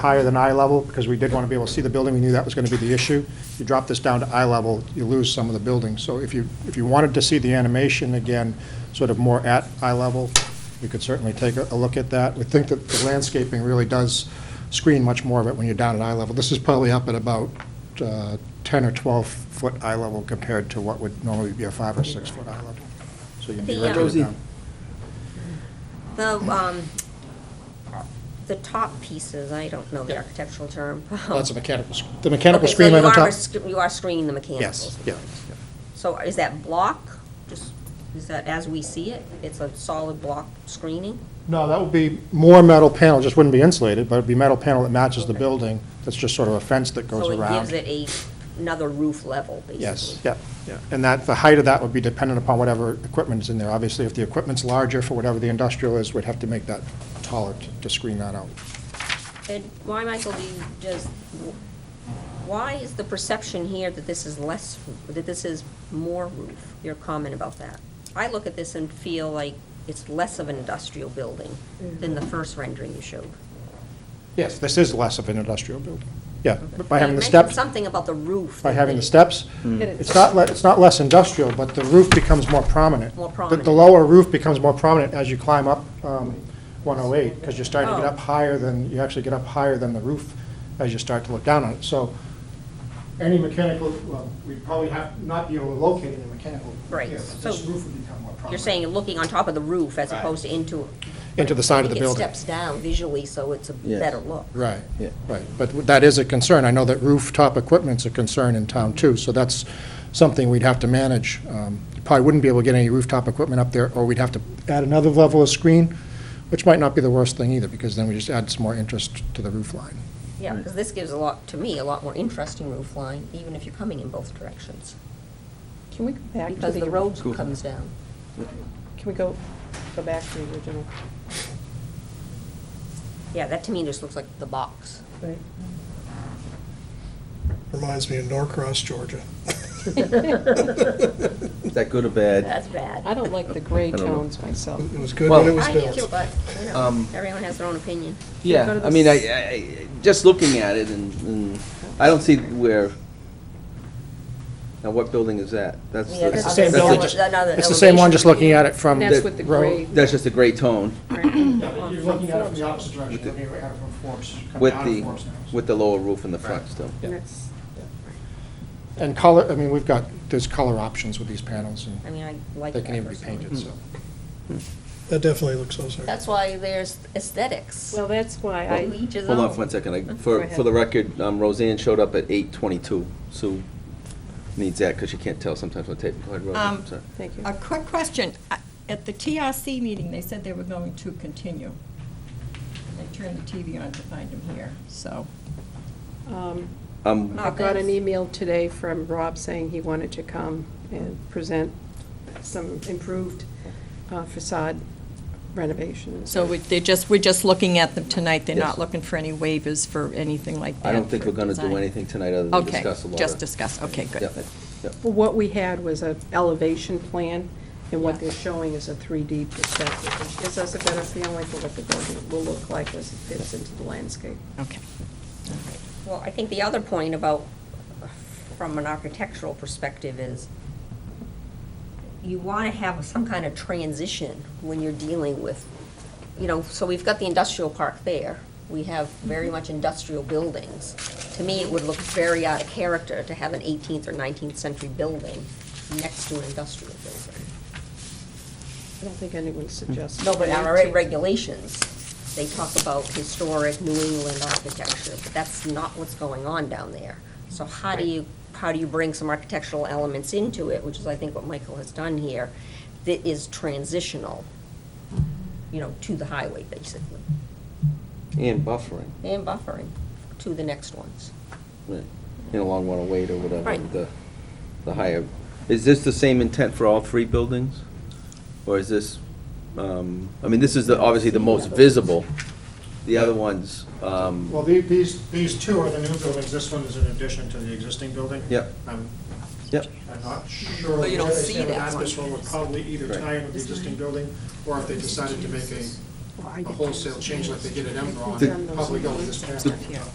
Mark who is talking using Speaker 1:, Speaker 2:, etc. Speaker 1: higher than eye level, because we did want to be able to see the building, we knew that was going to be the issue. You drop this down to eye level, you lose some of the building. So if you, if you wanted to see the animation again, sort of more at eye level, we could certainly take a a look at that. We think that the landscaping really does screen much more of it when you're down at eye level. This is probably up at about uh, 10 or 12-foot eye level compared to what would normally be a five or six-foot eye level. So you can be
Speaker 2: The,
Speaker 1: right
Speaker 2: um,
Speaker 1: down.
Speaker 2: The, um, the top pieces, I don't know the architectural term. Um,
Speaker 1: That's a mechanical, sc- the mechanical
Speaker 2: Okay, so
Speaker 1: screen right
Speaker 2: you
Speaker 1: on
Speaker 2: are
Speaker 1: top.
Speaker 2: sc- You are screening the mechanicals.
Speaker 1: Yes, yeah.
Speaker 2: So is that block, just, is that as we see it? It's a solid block screening?
Speaker 1: No, that would be more metal panel, just wouldn't be insulated, but it'd be metal panel that matches the building. That's just sort of a fence that goes around.
Speaker 2: So it gives it a, another roof level, basically?
Speaker 1: Yes, yeah, yeah. And that, the height of that would be dependent upon whatever equipment's in there. Obviously, if the equipment's larger for whatever the industrial is, we'd have to make that taller to- to screen that out.
Speaker 2: And why, Michael, do you just, why is the perception here that this is less, that this is more roof? Your comment about that. I look at this and feel like it's less of an industrial building than
Speaker 1: Mm-hmm.
Speaker 2: the first rendering you showed.
Speaker 1: Yes, this is less of an industrial building. Yeah, but by
Speaker 2: You
Speaker 1: having the
Speaker 2: mentioned
Speaker 1: steps,
Speaker 2: something about the roof.
Speaker 1: by
Speaker 2: that
Speaker 1: having the
Speaker 2: they-
Speaker 1: steps,
Speaker 3: It
Speaker 1: it's not, le- it's not less industrial, but the roof becomes more prominent.
Speaker 2: More
Speaker 1: The-
Speaker 2: prominent.
Speaker 1: The lower roof becomes more prominent as you climb up um, 108, because you're starting to get
Speaker 2: Oh.
Speaker 1: up higher than, you actually get up higher than the roof as you start to look down on it. So any mechanical, well, we'd probably have, not be able to locate any mechanical.
Speaker 2: Right,
Speaker 1: here, but This
Speaker 2: so
Speaker 1: roof would become more prominent.
Speaker 2: You're saying you're looking on top of the roof as
Speaker 1: Right.
Speaker 2: opposed to into.
Speaker 1: Into the side of the
Speaker 2: It
Speaker 1: building.
Speaker 2: steps down visually, so it's a
Speaker 3: Yes.
Speaker 2: better look.
Speaker 1: Right,
Speaker 3: Yeah.
Speaker 1: right. But that is a concern. I know that rooftop equipment's a concern in town, too, so that's something we'd have to manage. Um, you Probably wouldn't be able to get any rooftop equipment up there, or we'd have to add another level of screen, which might not be the worst thing either, because then we just add some more interest to the roof line.
Speaker 2: Yeah, because this gives a lot, to me, a lot more interesting roof line, even if you're coming in both directions.
Speaker 3: Can we go back to
Speaker 2: Because the
Speaker 3: the,
Speaker 2: road comes down.
Speaker 3: can we go, go back to the original?
Speaker 2: Yeah, that to me just looks like the box.
Speaker 3: Right.
Speaker 4: Reminds me of Norcross, Georgia.
Speaker 5: Is that good or bad?
Speaker 2: That's bad.
Speaker 3: I don't like the gray
Speaker 5: I don't know.
Speaker 3: tones myself.
Speaker 4: It was good when it
Speaker 5: Well-
Speaker 4: was
Speaker 2: I do
Speaker 4: built.
Speaker 2: too, but, you know,
Speaker 5: Um,
Speaker 2: everyone has their own opinion.
Speaker 3: Go
Speaker 5: Yeah,
Speaker 3: to
Speaker 5: I mean, I,
Speaker 3: this-
Speaker 5: I, I- just looking at it and, and I don't see where, now what building is that? That's,
Speaker 1: It's
Speaker 2: Yeah,
Speaker 1: the
Speaker 5: that's-
Speaker 1: same
Speaker 2: other
Speaker 1: building,
Speaker 2: ele-
Speaker 1: just-
Speaker 2: another
Speaker 1: It's the same one, just looking at it from.
Speaker 3: That's with the gray.
Speaker 5: that's just a gray tone
Speaker 1: You're looking at it from the opposite direction, looking at it from Forbes, coming
Speaker 5: with
Speaker 1: out of
Speaker 5: the,
Speaker 1: Forbes now.
Speaker 5: with the lower roof in the front still.
Speaker 3: And that's-
Speaker 1: And color, I mean, we've got, there's color options with these panels,
Speaker 2: I
Speaker 1: and
Speaker 2: mean, I like
Speaker 1: they
Speaker 2: that
Speaker 1: can even be
Speaker 2: personally.
Speaker 1: painted, so.
Speaker 4: That definitely looks ozark.
Speaker 2: That's why there's aesthetics.
Speaker 3: Well, that's why
Speaker 2: To
Speaker 3: I,
Speaker 2: Each his
Speaker 5: Hold on
Speaker 2: own.
Speaker 5: for one second. I-
Speaker 3: Go
Speaker 5: For,
Speaker 3: ahead.
Speaker 5: for the record, um, Roseanne showed up at eight twenty-two. Sue needs that because she can't tell sometimes on tape. Go ahead, Roseanne,
Speaker 6: Um,
Speaker 5: sorry.
Speaker 3: thank you.
Speaker 6: A quick question. I- At the TRC meeting, they said they were going to continue. I turned the TV on to find him here, so.
Speaker 3: Um,
Speaker 5: Um,
Speaker 3: I got an email today from Rob saying he wanted to come and present some improved uh, facade renovations.
Speaker 6: So we- they're just, we're just looking at them tonight. They're
Speaker 5: Yes.
Speaker 6: not looking for any waivers for anything like that.
Speaker 5: I don't think
Speaker 6: for
Speaker 5: we're gonna do
Speaker 6: design.
Speaker 5: anything tonight other than
Speaker 6: Okay,
Speaker 5: discuss a lot of.
Speaker 6: just discuss. Okay,
Speaker 5: Yep,
Speaker 6: good.
Speaker 5: yep.
Speaker 3: Well, What we had was an elevation plan, and what they're showing is a 3D perspective, which gives us a better feeling for what the building will look like as it fits into the landscape.
Speaker 6: Okay.
Speaker 2: Well, I think the other point about, from an architectural perspective is you want to have some kind of transition when you're dealing with, you know, so we've got the industrial park there. We have very much industrial buildings. To me, it would look very out of character to have an 18th or 19th century building next to an industrial building.
Speaker 3: I don't think anyone suggested.
Speaker 2: No, but
Speaker 3: that.
Speaker 2: our regulations, they talk about historic New England architecture, but that's not what's going on down there. So how do you, how do you bring some architectural elements into it, which is, I think, what Michael has done here, that is transitional, you know, to the highway, basically,
Speaker 5: And buffering.
Speaker 2: and buffering to the next ones.
Speaker 5: Right. in a long run of weight or whatever,
Speaker 2: Right.
Speaker 5: the, the higher. Is this the same intent for all three buildings? Or is this, um, I mean, this is the, obviously the most visible. The other ones, um,
Speaker 1: Well, the- these, these two are the new buildings, this one is in addition to the existing building.
Speaker 5: Yep.
Speaker 1: I'm,
Speaker 5: yep,
Speaker 1: I'm not sure.
Speaker 6: But you don't
Speaker 1: where they
Speaker 6: see
Speaker 1: stand on
Speaker 6: that
Speaker 1: This
Speaker 6: one.
Speaker 1: one would probably either
Speaker 5: Right.
Speaker 1: tie in with the existing building, or if they decided to make a
Speaker 3: Well, I
Speaker 7: a
Speaker 3: get
Speaker 7: wholesale
Speaker 3: those.
Speaker 7: change like they did at
Speaker 3: I
Speaker 7: Enron,
Speaker 3: think I'm
Speaker 7: probably
Speaker 3: those-
Speaker 7: go with this plan.